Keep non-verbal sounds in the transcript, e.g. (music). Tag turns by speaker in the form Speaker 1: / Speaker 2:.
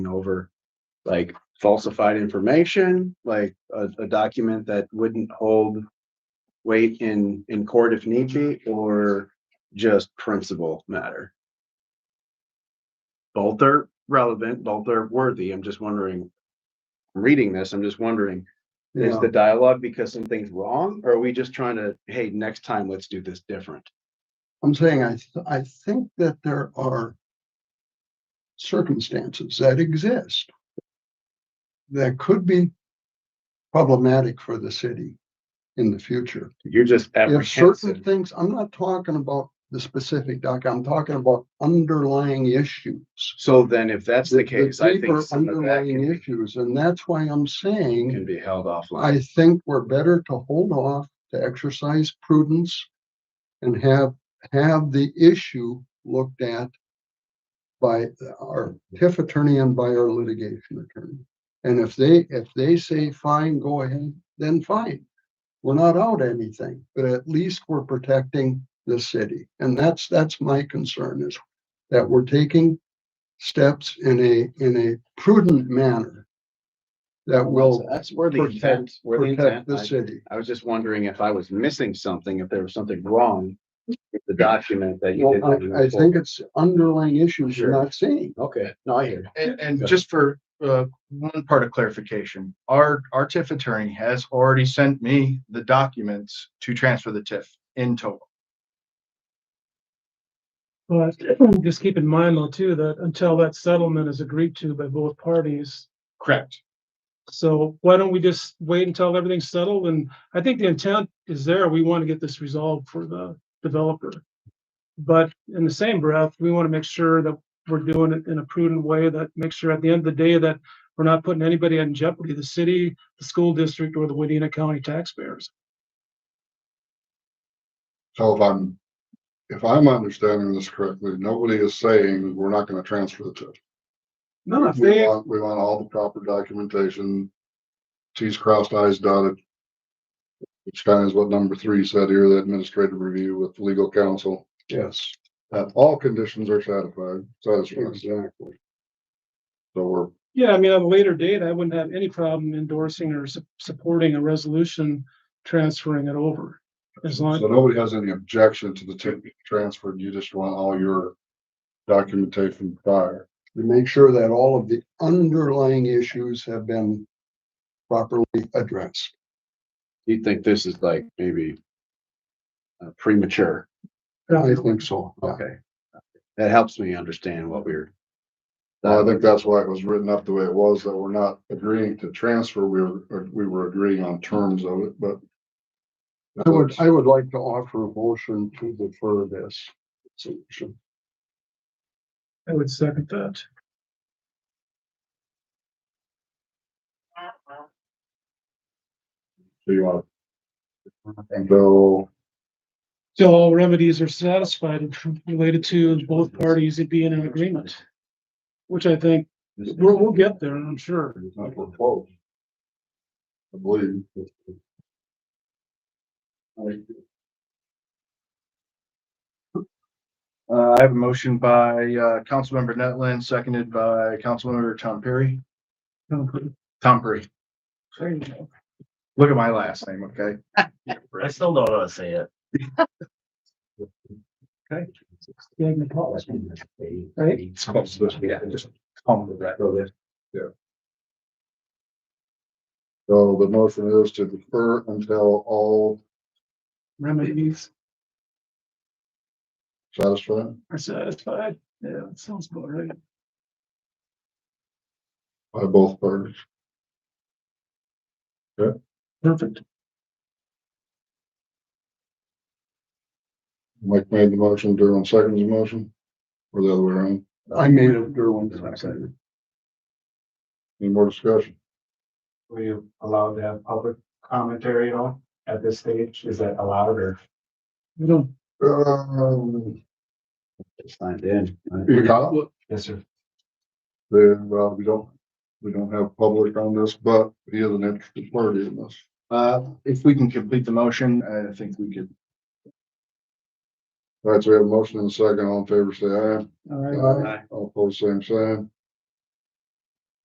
Speaker 1: over like falsified information, like a, a document that wouldn't hold weight in, in court if need be, or just principal matter? Both are relevant, both are worthy. I'm just wondering, reading this, I'm just wondering, is the dialogue because something's wrong? Or are we just trying to, hey, next time, let's do this different?
Speaker 2: I'm saying I, th- I think that there are circumstances that exist that could be problematic for the city in the future.
Speaker 1: You're just
Speaker 2: If certain
Speaker 1: apprehensive.
Speaker 2: things, I'm not talking about the specific doc, I'm talking about underlying issues.
Speaker 1: So then if that's the case, I think
Speaker 2: deeper
Speaker 1: some of that
Speaker 2: Underlying
Speaker 1: can be-
Speaker 2: issues, and that's why I'm saying
Speaker 1: can be held offline.
Speaker 2: I think we're better to hold off, to exercise prudence and have, have the issue looked at by our TIF attorney and by our litigation attorney. And if they, if they say, fine, go ahead, then fine. We're not out anything, but at least we're protecting the city. And that's, that's my concern is that we're taking steps in a, in a prudent manner that will
Speaker 1: That's where the
Speaker 2: protect-
Speaker 1: intent, where the
Speaker 2: protect
Speaker 1: intent.
Speaker 2: the
Speaker 1: I-
Speaker 2: city.
Speaker 1: I was just wondering if I was missing something, if there was something wrong with the document that you
Speaker 2: Well,
Speaker 1: didn't.
Speaker 2: I, I think it's underlying issues you're
Speaker 1: Sure.
Speaker 2: not seeing.
Speaker 1: Okay, no, I hear.
Speaker 3: And,
Speaker 1: Go
Speaker 3: and just for, uh, one part of clarification, our, our TIF attorney has already sent me the documents to transfer the TIF in total.
Speaker 4: But (clears throat) just keep in mind though too, that until that settlement is agreed to by both parties.
Speaker 3: Correct.
Speaker 4: So why don't we just wait until everything's settled? And I think the intent is there. We want to get this resolved for the developer. But in the same breath, we want to make sure that we're doing it in a prudent way that makes sure at the end of the day that we're not putting anybody in jeopardy, the city, the school district, or the Wadena County taxpayers.
Speaker 5: So if I'm, if I'm understanding this correctly, nobody is saying we're not gonna transfer the TIF.
Speaker 4: No, if
Speaker 5: We
Speaker 4: they,
Speaker 5: want, we want all the proper documentation, T's crossed, I's dotted. Which kind of is what number three said here, the administrative review with legal counsel,
Speaker 2: Yes,
Speaker 5: that all conditions are satisfied, satisfied.
Speaker 2: exactly.
Speaker 5: So we're,
Speaker 4: Yeah, I mean, at a later date, I wouldn't have any problem endorsing or su- supporting a resolution transferring it over. As
Speaker 5: so
Speaker 4: long,
Speaker 5: nobody has any objection to the TIF being transferred, you just want all your documentation prior.
Speaker 2: To make sure that all of the underlying issues have been properly addressed.
Speaker 1: You think this is like maybe uh, premature?
Speaker 2: I think so. yeah.
Speaker 1: Okay. That helps me understand what we're.
Speaker 5: Well, I think that's why it was written up the way it was, that we're not agreeing to transfer, we were, uh, we were agreeing on terms of it, but.
Speaker 2: I would, I would like to offer a motion to defer this solution.
Speaker 4: I would second that.
Speaker 5: So you want. So,
Speaker 4: Till all remedies are satisfied and related to both parties being in agreement. Which I think, we'll, we'll get there, I'm sure.
Speaker 5: it's not for close. I believe.
Speaker 3: Uh, I have a motion by, uh, Councilmember Netland, seconded by Councilmember Tom Perry. Tom Perry,
Speaker 4: There you go.
Speaker 3: look at my last name, okay?
Speaker 6: I still don't know how to say it.
Speaker 4: Magna Paulus. Right?
Speaker 5: So the motion is to defer until all
Speaker 4: Remedies
Speaker 5: satisfied.
Speaker 4: are satisfied. Yeah, that sounds about right.
Speaker 5: by both parties.
Speaker 4: Perfect.
Speaker 5: Mike made the motion, Derwin seconded the motion, or the other way around.
Speaker 2: I made it Derwin second.
Speaker 5: Any more discussion?
Speaker 7: Were you allowed to have public commentary at all at this stage? Is that allowed or?
Speaker 4: We don't,
Speaker 5: Um,
Speaker 1: Signed in.
Speaker 5: you got it?
Speaker 7: Yes, sir.
Speaker 5: Then, well, we don't, we don't have public on this, but he is an interested party in this.
Speaker 3: Uh, if we can complete the motion, I think we could.
Speaker 5: All right, so we have a motion and a second. All in favor, say aye.
Speaker 4: all right.
Speaker 5: All opposed, same sign.